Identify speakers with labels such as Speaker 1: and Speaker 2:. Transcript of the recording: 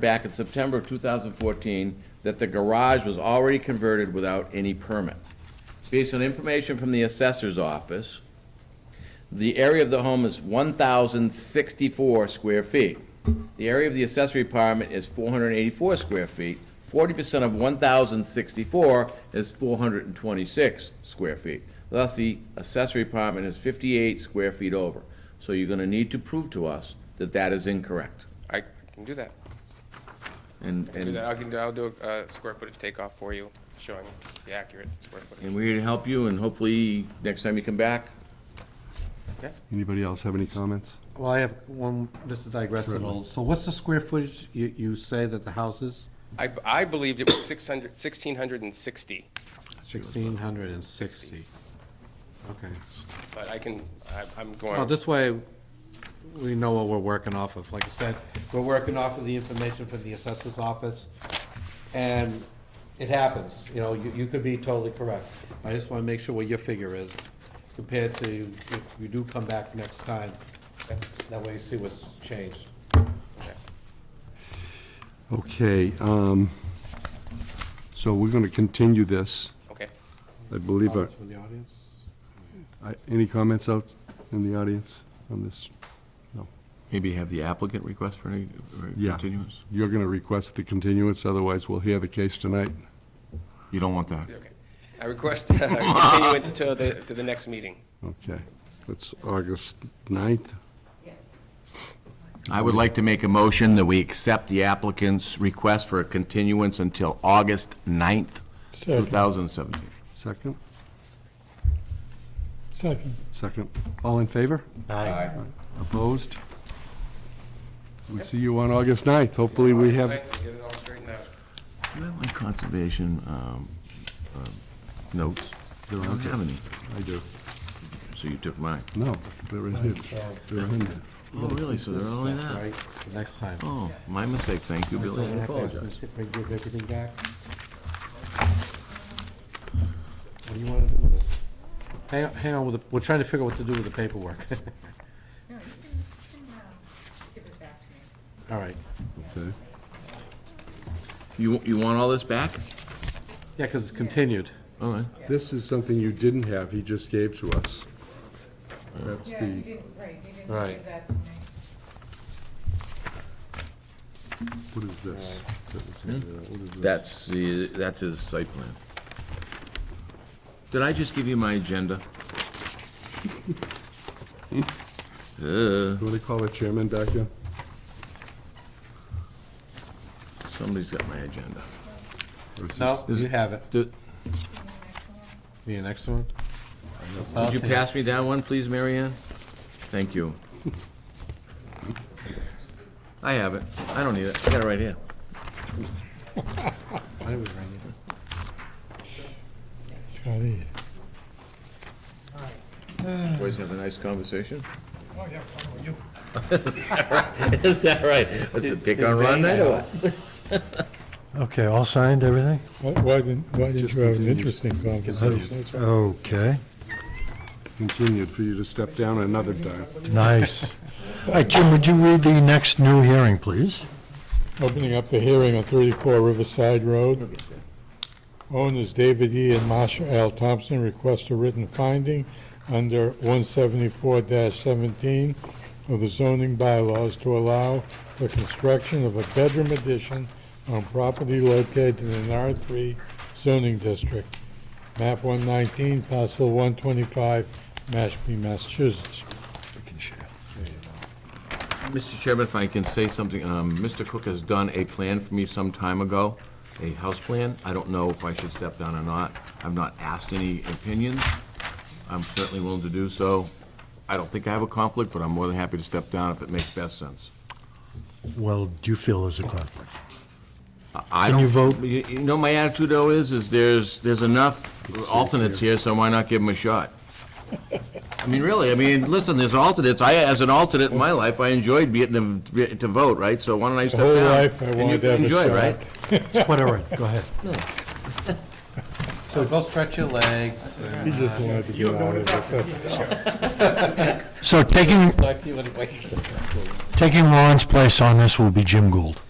Speaker 1: back in September of 2014 that the garage was already converted without any permit. Based on information from the assessor's office, the area of the home is 1,064 square feet. The area of the accessory apartment is 484 square feet. 40% of 1,064 is 426 square feet. Thus, the accessory apartment is 58 square feet over. So you're going to need to prove to us that that is incorrect.
Speaker 2: I can do that.
Speaker 1: And,
Speaker 2: Do that.
Speaker 1: and
Speaker 2: I can do, I'll do a uh, square footage takeoff for you, showing the accurate square
Speaker 1: and
Speaker 2: footage.
Speaker 1: we're here to help you, and hopefully, next time you come back,
Speaker 3: Anybody else have any comments?
Speaker 4: Well, I have one, this is digressing a little. So what's the square footage you, you say that the house is?
Speaker 2: I, I believed it was 600, 1,660,
Speaker 4: Sixteen hundred and sixty. Okay.
Speaker 2: but I can, I- I'm
Speaker 4: Well,
Speaker 2: going,
Speaker 4: this way, we know what we're working off of. Like I said, we're working off of the information from the assessor's office, and it happens, you know, you, you could be totally correct. I just wanna make sure what your figure is compared to if you do come back next time. That way you see what's changed.
Speaker 3: Okay, um, so we're going to continue this.
Speaker 2: okay.
Speaker 3: I believe, our-
Speaker 4: Comments from the audience?
Speaker 3: I- any comments out in the audience on this? No.
Speaker 1: maybe have the applicant request for any for a
Speaker 3: Yeah.
Speaker 1: continuance?
Speaker 3: You're going to request the continuance, otherwise we'll hear the case tonight.
Speaker 1: You don't want that.
Speaker 2: Okay. I request uh, continuance to the, to the next meeting.
Speaker 3: Okay, that's August 9th.
Speaker 1: I would like to make a motion that we accept the applicant's request for a continuance until August 9th, 2017.
Speaker 3: Second?
Speaker 5: Second.
Speaker 3: Second. All in favor? Opposed? We'll see you on August 9th. Hopefully we have,
Speaker 2: Get it all straightened out.
Speaker 1: Do you have my conservation um, um, notes? I don't have any,
Speaker 3: I do.
Speaker 1: so you took mine.
Speaker 3: No, they're in here. They're in there.
Speaker 1: Oh, really? So they're all in that?
Speaker 4: Right, next time.
Speaker 1: Oh, my mistake, thank you, Billy, I apologize.
Speaker 4: Give everything back. What do you want to do with this? Hang on, hang on, with the- we're trying to figure out what to do with the paperwork.
Speaker 6: No, you can, you can, uh, give it back to me.
Speaker 4: All right.
Speaker 3: Okay.
Speaker 1: You, you want all this back?
Speaker 4: Yeah, because it's continued.
Speaker 1: All right.
Speaker 3: This is something you didn't have, he just gave to us. That's
Speaker 6: Yeah, you
Speaker 3: the,
Speaker 6: didn't, right, you didn't
Speaker 4: Right.
Speaker 6: give that to me.
Speaker 3: what is this? That was handed out. What is this?
Speaker 1: That's, the that's his site plan. Did I just give you my agenda? Uh,
Speaker 3: What do they call the chairman back there?
Speaker 1: Somebody's got my agenda.
Speaker 3: Or is
Speaker 4: No,
Speaker 3: this-
Speaker 4: you have it.
Speaker 1: Did
Speaker 4: Need an extra one?
Speaker 1: did you pass me down one, please, Mary Ann? Thank you. I have it. I don't need it. I got it right here.
Speaker 4: Why did we bring it?
Speaker 5: Scotty.
Speaker 1: Boys have a nice conversation. Oh, yeah, Is that right? That's a pick on Ron Knight or what?
Speaker 5: Okay, all signed, everything? Why why didn't, why didn't
Speaker 3: Just
Speaker 5: you have an
Speaker 3: continues.
Speaker 5: interesting conversation?
Speaker 7: Okay,
Speaker 3: Continued for you to step down another time.
Speaker 7: nice. All right, Jim, would you read the next new hearing, please?
Speaker 5: Opening up the hearing on 34 Riverside Road. Owners David E. and Marsha L. Thompson request a written finding under 174-17 of the zoning bylaws to allow the construction of a bedroom addition on property located in an R3 zoning district, map 119, parcel 125, Mashpee, Massachusetts.
Speaker 1: Mr. Chairman, if I can say something, um, Mr. Cook has done a plan for me some time ago, a house plan. I don't know if I should step down or not. I've not asked any opinions. I'm certainly willing to do so. I don't think I have a conflict, but I'm more than happy to step down if it makes best sense.
Speaker 7: Well, do you feel there's a conflict?
Speaker 1: I
Speaker 7: Can you
Speaker 1: don't-
Speaker 7: vote?
Speaker 1: You you know, my attitude though is, is there's, there's enough alternates here, so why not give them a shot? I mean, really, I mean, listen, there's alternates. I, as an alternate in my life, I enjoyed getting to to vote, right? So why don't I step down?
Speaker 5: whole life I
Speaker 1: And you
Speaker 5: wanted to
Speaker 1: can
Speaker 5: have a
Speaker 1: enjoy,
Speaker 5: shot.
Speaker 1: right?
Speaker 7: Whatever, go ahead.
Speaker 4: So go stretch your legs. and-
Speaker 5: He just wanted to get out of this. That's-
Speaker 7: So taking,
Speaker 4: Like you would- like-
Speaker 7: taking Ron's place on this will be Jim Gould.